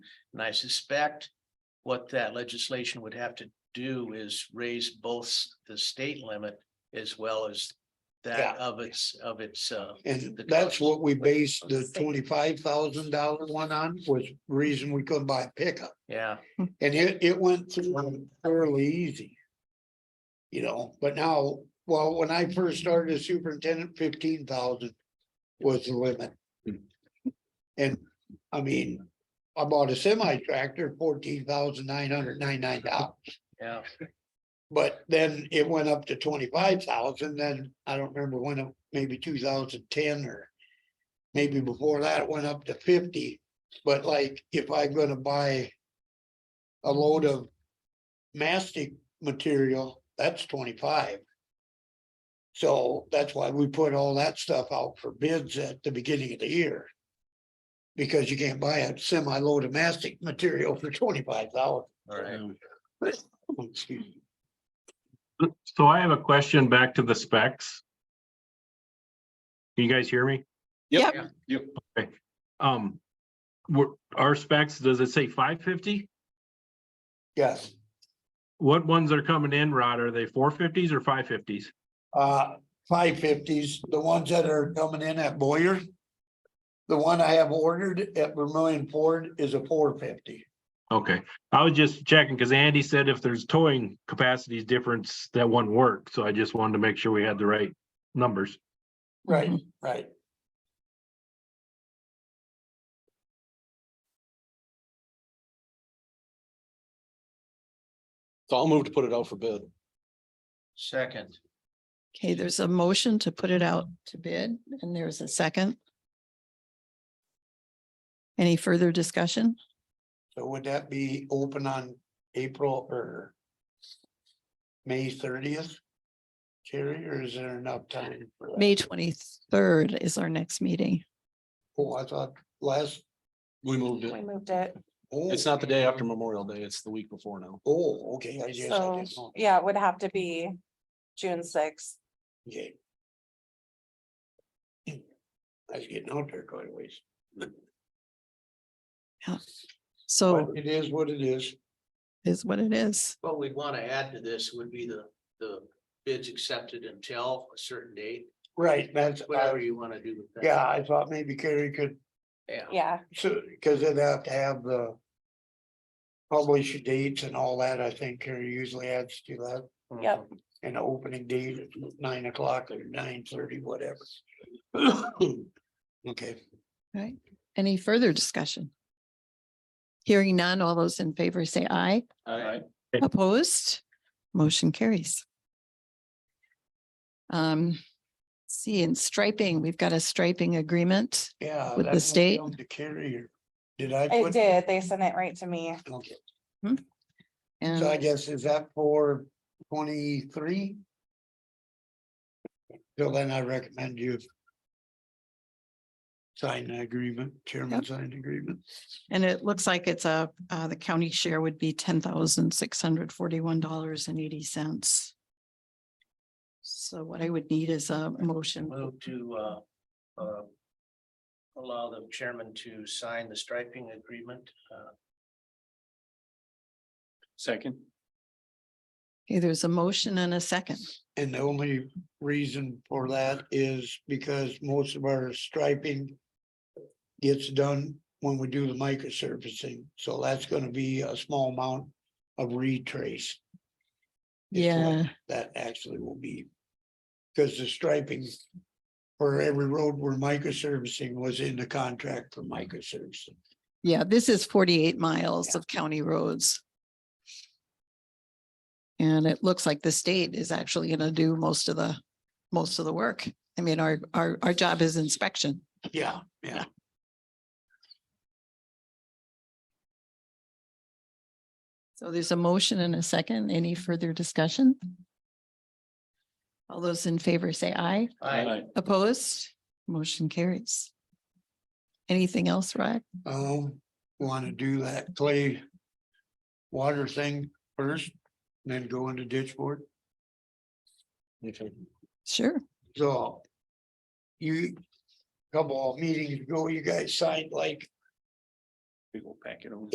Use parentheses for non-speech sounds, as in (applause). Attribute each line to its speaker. Speaker 1: And I suspect what that legislation would have to do is raise both s- the state limit as well as
Speaker 2: Yeah.
Speaker 1: that of its, of its, uh,
Speaker 2: And
Speaker 1: the
Speaker 2: that's
Speaker 1: cost.
Speaker 2: what we based the
Speaker 3: Same.
Speaker 2: twenty-five thousand dollar one on, was reason we couldn't buy a pickup,
Speaker 1: Yeah,
Speaker 2: and it, it went through fairly easy. You know, but now, well, when I first started as superintendent, fifteen thousand was the limit.
Speaker 1: Hmm.
Speaker 2: And, I mean, I bought a semi tractor, fourteen thousand nine hundred ninety-nine dollars.
Speaker 1: yeah,
Speaker 2: But then it went up to twenty-five thousand, then I don't remember when, it- maybe two thousand ten or. Maybe before that, it went up to fifty, but like, if I'm gonna buy. A load of mastic material, that's twenty-five. So that's why we put all that stuff out for bids at the beginning of the year. Because you can't buy a semi-load of mastic material for twenty-five thousand.
Speaker 1: all right.
Speaker 2: Oh, Excuse me.
Speaker 4: So I have a question back to the specs. Can you guys hear me?
Speaker 5: Yep.
Speaker 4: Yep. Okay, um, were, our specs, does it say five fifty?
Speaker 2: Yes.
Speaker 4: What ones are coming in, Rod? Are they four fifties or five fifties?
Speaker 2: uh, five fifties, the ones that are coming in at Boyer. The one I have ordered at Vermillion Ford is a four fifty.
Speaker 4: Okay, I was just checking because Andy said if there's towing capacities difference, that one worked. So I just wanted to make sure we had the right numbers.
Speaker 2: Right, right.
Speaker 5: So I'll move to put it out for bid.
Speaker 1: Second,
Speaker 3: Okay, there's a motion to put it out to bid and there's a second. Any further discussion?
Speaker 2: So would that be open on April or? May thirtieth? Jerry, or is there enough time? for that?
Speaker 3: May twenty-third is our next meeting.
Speaker 2: Oh, I thought last.
Speaker 5: We moved
Speaker 6: We
Speaker 5: it.
Speaker 6: moved it,
Speaker 2: oh,
Speaker 5: It's not the day after Memorial Day. It's the week before now.
Speaker 2: Oh, okay, I guess I didn't
Speaker 6: so,
Speaker 2: know.
Speaker 6: yeah, it would have to be June sixth.
Speaker 2: Okay. Hmm. I was getting out there quite a ways, but
Speaker 3: So
Speaker 2: it is what it is.
Speaker 3: is what it is.
Speaker 1: what we'd want to add to this would be the, the bids accepted until a certain date,
Speaker 2: Right, that's, uh,
Speaker 1: whatever you want to do with that.
Speaker 2: yeah, I thought maybe Carrie could,
Speaker 1: Yeah,
Speaker 6: Yeah,
Speaker 2: so, cause they'd have to have the. Publish dates and all that, I think Carrie usually adds to that,
Speaker 6: Yep.
Speaker 2: and the opening date at nine o'clock or nine thirty, whatever. (coughs) Okay,
Speaker 3: Right? Any further discussion? Hearing none, all those in favor say aye.
Speaker 1: Alright.
Speaker 3: Opposed? Motion carries. Um, see, in striping, we've got a striping agreement.
Speaker 2: yeah.
Speaker 3: With the
Speaker 2: that must
Speaker 3: state?
Speaker 2: come To Carrie, or did I?
Speaker 6: it
Speaker 2: put-
Speaker 6: did. They sent it right to me.
Speaker 2: Okay, So I
Speaker 3: And
Speaker 2: guess is that for twenty-three? Till then, I recommend you. Sign the agreement, chairman
Speaker 3: Yep.
Speaker 2: signed agreement.
Speaker 3: and it looks like it's a, uh, the county share would be ten thousand six hundred forty-one dollars and eighty cents. So what I would need is a motion.
Speaker 1: Move to, uh, uh, allow the chairman to sign the striping agreement, uh,
Speaker 5: Second.
Speaker 3: Okay, there's a motion and a second.
Speaker 2: And the only reason for that is because most of our striping. Gets done when we do the micro surfacing, so that's gonna be a small amount of retrace It's like-
Speaker 3: Yeah,
Speaker 2: that actually will be. Cause the striping for every road we're micro servicing was in the contract for micro servicing.
Speaker 3: yeah, this is forty-eight miles of county roads. And it looks like the state is actually gonna do most of the, most of the work. I mean, our, our, our job is inspection.
Speaker 2: Yeah, yeah.
Speaker 3: So there's a motion and a second. Any further discussion? All those in favor say aye.
Speaker 1: I,
Speaker 3: Opposed? Motion carries. Anything else, Rod?
Speaker 2: Um, wanna do that clay. Water thing first, then go into ditch board,
Speaker 5: Okay.
Speaker 3: Sure.
Speaker 2: so. You, couple of meetings ago, you guys signed like
Speaker 5: We will pack it over.